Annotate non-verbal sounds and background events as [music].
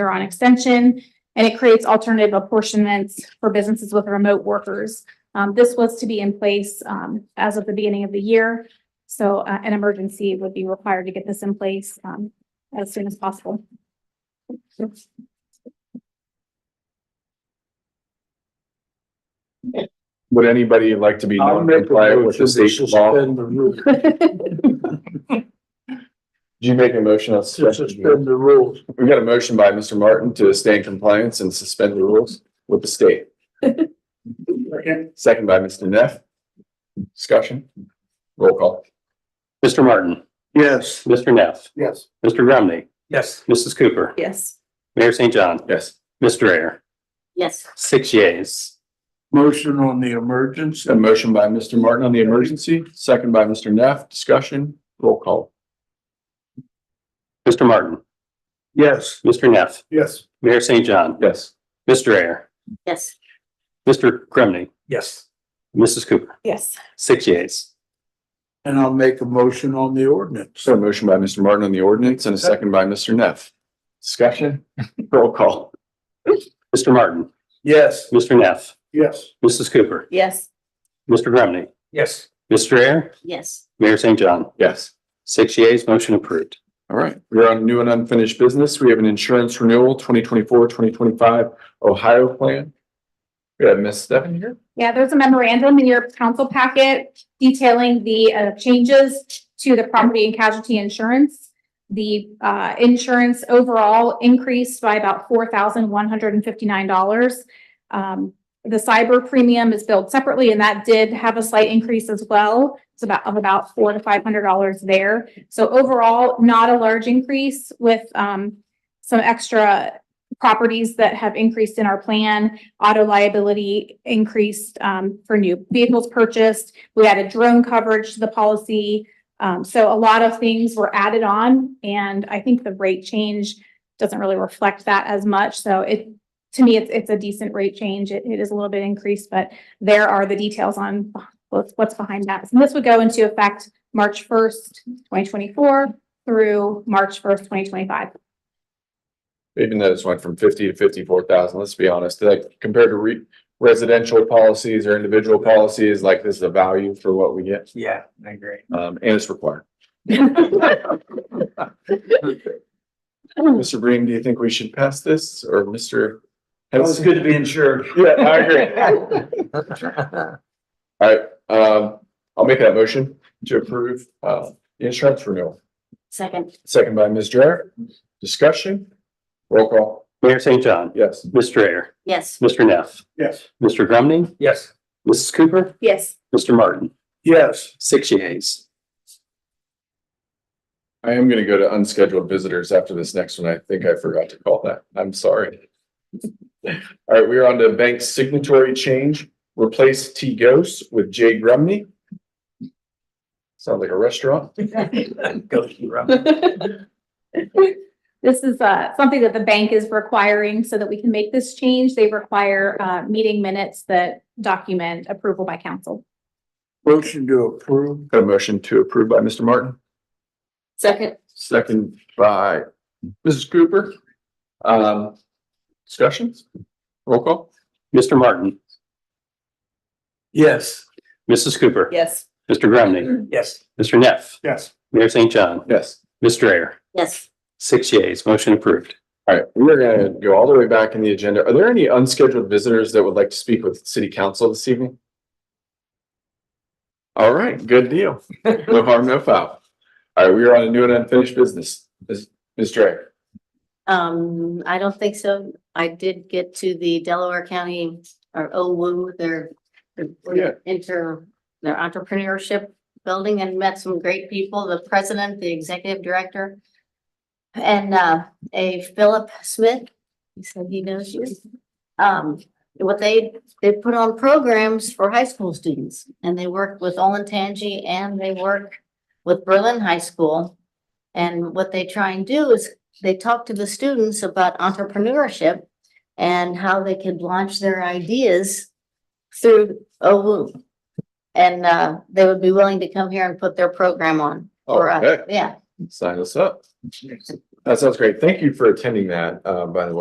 are on extension. And it creates alternative apportionments for businesses with remote workers. Um, this was to be in place, um, as of the beginning of the year. So, uh, an emergency would be required to get this in place, um, as soon as possible. [laughs] Would anybody like to be I'll known make to a comply with motion the to state law? Do suspend the rules, you make a motion on to suspension? suspend the rules. We've got a motion by Mr. Martin to stay in compliance and suspend the rules with the state. Second by Mr. Neff. Discussion. Roll call. Mr. Martin, Yes. Mr. Neff, Yes. Mr. Grumney, Yes. Mrs. Cooper, Yes. Mayor St. John, Yes. Mr. Ayer, Yes. six yeas. Motion on the emergency. A motion by Mr. Martin on the emergency, second by Mr. Neff. Discussion. Roll call. Mr. Martin, Yes. Mr. Neff, Yes. Mayor St. John, Yes. Mr. Ayer, Yes. Mr. Grumney, Yes. Mrs. Cooper, Yes. six yeas. And I'll make a motion on the ordinance. So a motion by Mr. Martin on the ordinance and a second by Mr. Neff. Discussion. Roll call. Mr. Martin, Yes. Mr. Neff, Yes. Mrs. Cooper, Yes. Mr. Grumney, Yes. Mr. Ayer, Yes. Mayor St. John, Yes. six yeas, motion approved. All right, we're on new and unfinished business. We have an insurance renewal 2024-2025 Ohio plan. We have Miss Steffen here. Yeah, there's a memorandum in your council packet detailing the uh, changes to the property and casualty insurance. The uh, insurance overall increased by about four thousand one hundred and fifty-nine dollars. Um, The cyber premium is billed separately and that did have a slight increase as well. It's about, of about four to five hundred dollars there. So overall, not a large increase with um, some extra properties that have increased in our plan auto liability increased um, for new vehicles purchased. We added drone coverage to the policy. Um, so a lot of things were added on and I think the rate change doesn't really reflect that as much. So it, to me, it's, it's a decent rate change. It, it is a little bit increased, but there are the details on what's, what's behind that. And this would go into effect March first, twenty twenty-four through March first, twenty twenty-five. Even though this went from fifty to fifty-four thousand, let's be honest, like compared to re- residential policies or individual policies, like this is a value for what we get. Yeah, I agree. Um, and it's required. Mr. Bream, do you think we should pass this or Mr.? It's good to be insured. Yeah, I agree. [laughs] All right, um, I'll make that motion to approve, uh, the insurance renewal. Second. Second by Ms. Jarrett. Discussion? Roll call. Mayor St. John, Yes. Mr. Ayer, Yes. Mr. Neff, Yes. Mr. Grumney, Yes. Mrs. Cooper, Yes. Mr. Martin, [laughs] Yes. six yeas. I am gonna go to unscheduled visitors after this next one. I think I forgot to call that. I'm sorry. All right, we are on to bank signatory change. Replace T Ghost with J Grumney. Sounds like a restaurant. This is uh something that the bank is requiring so that we can make this change. They require uh meeting minutes that document approval by council. Motion to approve. Got a motion to approve by Mr. Martin, Second. second by Mrs. Cooper. Um, discussions? Roll call. Mr. Martin, Yes. Mrs. Cooper, Yes. Mr. Grumney, Yes. Mr. Neff, Yes. Mayor St. John, Yes. Mr. Ayer, Yes. six yeas, motion approved. All right, we're gonna go all the way back in the agenda. Are there any unscheduled visitors that would like to speak with city council this evening? All right, good deal. No harm, no foul. All right, we are on a new and unfinished business. Ms. Ms. Drake, Um, I don't think so. I did get to the Delaware County or OWU, their Yeah. their inter, their entrepreneurship building and met some great people, the president, the executive director. And uh, a Philip Smith, he said he knows you. Um, what they, they put on programs for high school students and they work with Olentangy and they work with Berlin High School. And what they try and do is they talk to the students about entrepreneurship and how they could launch their ideas through OWU. And uh, they would be willing to come here and put their program on for us. Okay. Yeah, sign us up. That sounds great. Thank you for attending that, uh, by the way.